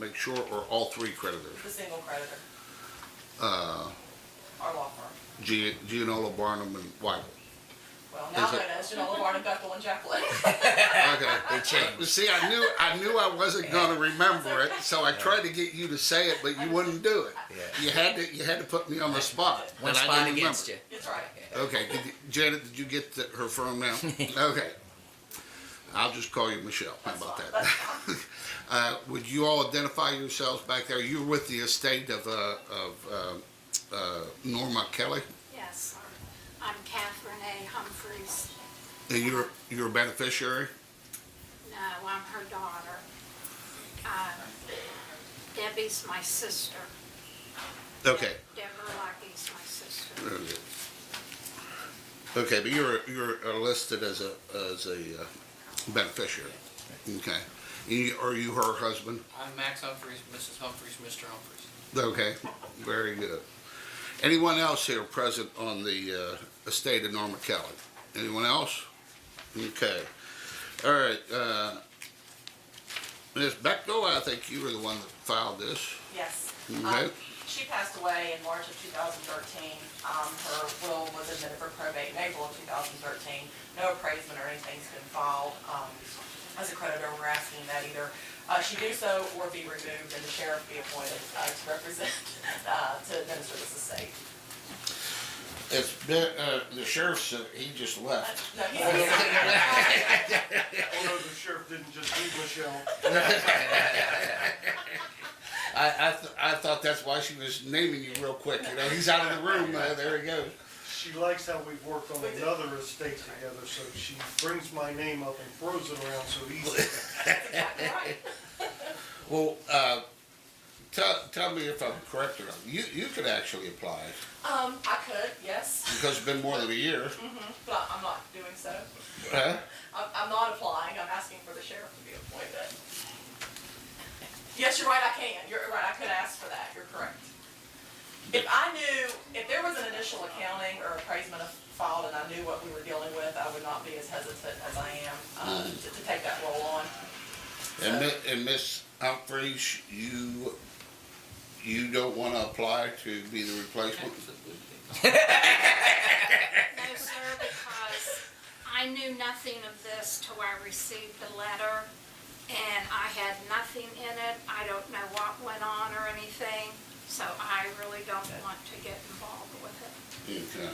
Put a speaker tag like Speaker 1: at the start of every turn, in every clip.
Speaker 1: Lake Shore or all three creditors?
Speaker 2: the single creditor,
Speaker 1: Uh,
Speaker 2: our law firm.
Speaker 1: Gian- Gianola, Barnum, and Weigel.
Speaker 2: Well, now
Speaker 1: Is it-
Speaker 2: known as Janola Barnum Bethel and Jacqueline.
Speaker 1: Okay.
Speaker 3: They changed.
Speaker 1: See, I knew, I knew I wasn't gonna remember it, so I tried to get you to say it, but you wouldn't do it.
Speaker 3: Yeah.
Speaker 1: You had to, you had to put me on the spot.
Speaker 3: One
Speaker 1: and I
Speaker 3: spot
Speaker 1: didn't
Speaker 3: against you.
Speaker 1: remember.
Speaker 2: It's right.
Speaker 1: Okay, did you- Janet, did you get the- her phone now? Okay. I'll just call you Michelle, how
Speaker 2: That's
Speaker 1: about
Speaker 2: fine.
Speaker 1: that? Uh, would you all identify yourselves back there? You're with the estate of, uh, of, uh, uh, Norma Kelly,
Speaker 4: Yes, I'm Catherine A. Humphreys.
Speaker 1: and you're, you're a beneficiary?
Speaker 4: No, uh, I'm her daughter. Uh, Debbie's my sister.
Speaker 1: Okay.
Speaker 4: Deborah Lucky's my sister.
Speaker 1: Okay, Okay, but you're, you're uh, listed as a, as a uh, beneficiary, okay? You- Are you her husband?
Speaker 5: I'm Max Humphreys, Mrs. Humphreys, Mr. Humphreys.
Speaker 1: Okay, very good. Anyone else here present on the uh, estate of Norma Kelly? Anyone else? Okay, all right, uh, Ms. Beckdahl, I think you were the one that filed this,
Speaker 2: Yes. Um,
Speaker 1: okay?
Speaker 2: She passed away in March of 2013. Um, Her will was admitted for probate in April of 2013. No appraisement or anything's been filed. Um, As a creditor, we're asking that either uh, she do so or be removed and the sheriff be appointed uh, to represent, uh, to administer this estate.
Speaker 1: It's been, uh, the sheriff's, uh, he just left.
Speaker 2: Uh, No, he's- he's-
Speaker 6: Although the sheriff didn't just leave Michelle.
Speaker 1: I, I, th- I thought that's why she was naming you real quick. You know, he's out of the room. Uh, there he goes.
Speaker 6: She likes how we've worked on another estate together, so she brings my name up and throws it around so easily.
Speaker 2: exactly right.
Speaker 1: Well, uh, tell, tell me if I'm correct or not. You, you could actually apply
Speaker 2: Um, I could, yes,
Speaker 1: because it's been more than a year.
Speaker 2: but I'm not doing so.
Speaker 1: Huh?
Speaker 2: I'm, I'm not applying, I'm asking for the sheriff to be appointed. Yes, you're right, I can, you're right, I could ask for that, you're correct. If I knew, if there was an initial accounting or appraisement filed and I knew what we were dealing with, I would not be as hesitant as I am, um, to, to take that role on.
Speaker 1: And, Mi- and Miss Humphreys, you you don't want to apply to be the replacement.
Speaker 4: No, sir, because I knew nothing of this till I received the letter, and I had nothing in it. I don't know what went on or anything, so I really don't want to get involved with it.
Speaker 1: Okay.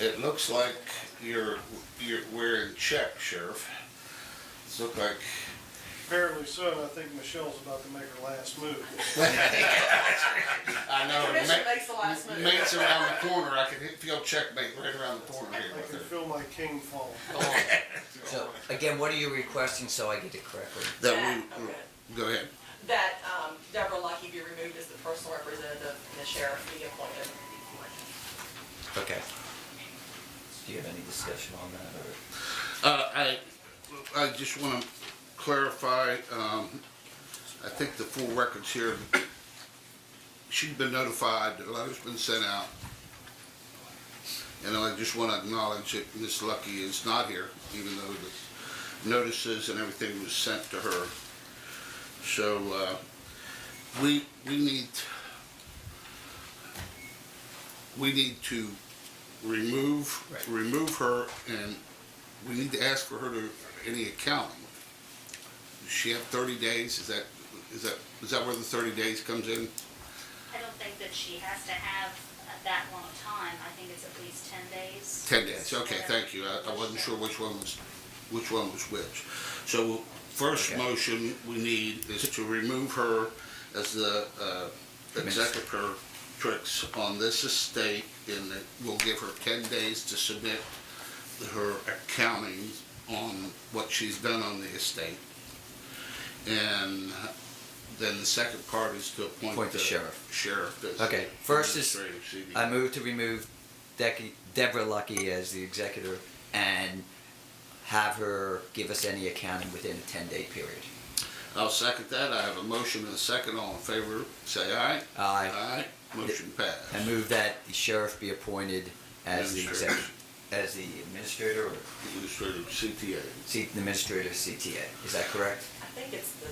Speaker 1: It looks like you're you're we're in check, sheriff. It's look like
Speaker 6: Apparently so, and I think Michelle's about to make her last move.
Speaker 1: I
Speaker 2: The
Speaker 1: know. Oh,
Speaker 2: commission
Speaker 1: Ma-
Speaker 2: makes the last move.
Speaker 1: Mate's around the corner, I can hit- feel checkmate right around the corner here
Speaker 6: I
Speaker 1: with
Speaker 6: can
Speaker 1: her.
Speaker 6: feel my king fall.
Speaker 3: So, again, what are you requesting so I get it correctly?
Speaker 1: That
Speaker 2: That, okay.
Speaker 1: we, go ahead.
Speaker 2: That, um, Deborah Lucky be removed as the personal representative and the sheriff be appointed.
Speaker 3: Okay. Do you have any discussion on that, or?
Speaker 1: Uh, I, I just wanna clarify, um, I think the full record's here. She's been notified, the letter's been sent out. And I just wanna acknowledge that Miss Lucky is not here, even though the notices and everything was sent to her. So, uh, we, we need, we need to remove,
Speaker 3: Right.
Speaker 1: remove her and we need to ask for her to, any accounting. Does she have thirty days? Is that, is that, is that where the thirty days comes in?
Speaker 7: I don't think that she has to have that long a time. I think it's at least ten days.
Speaker 1: Ten days, okay, thank you. I, I wasn't sure which one was, which one was which. So first
Speaker 3: Okay.
Speaker 1: motion we need is to remove her as the, uh, executor tricks on this estate and that we'll give her ten days to submit her accounting on what she's done on the estate. And then the second part is to appoint
Speaker 3: Appoint
Speaker 1: the
Speaker 3: the sheriff.
Speaker 1: sheriff as
Speaker 3: Okay, first is-
Speaker 1: administrative CD.
Speaker 3: I move to remove Dec- Deborah Lucky as the executor and have her give us any accounting within a ten-day period.
Speaker 1: I'll second that. I have a motion and a second. All in favor, say aye.
Speaker 3: Aye.
Speaker 1: Aye. Motion
Speaker 3: I
Speaker 1: passed.
Speaker 3: move that the sheriff be appointed as the exec,
Speaker 1: Administrator.
Speaker 3: as the administrator or
Speaker 1: Administrative CTA.
Speaker 3: C- administrator of CTA. Is that correct?
Speaker 2: I think it's the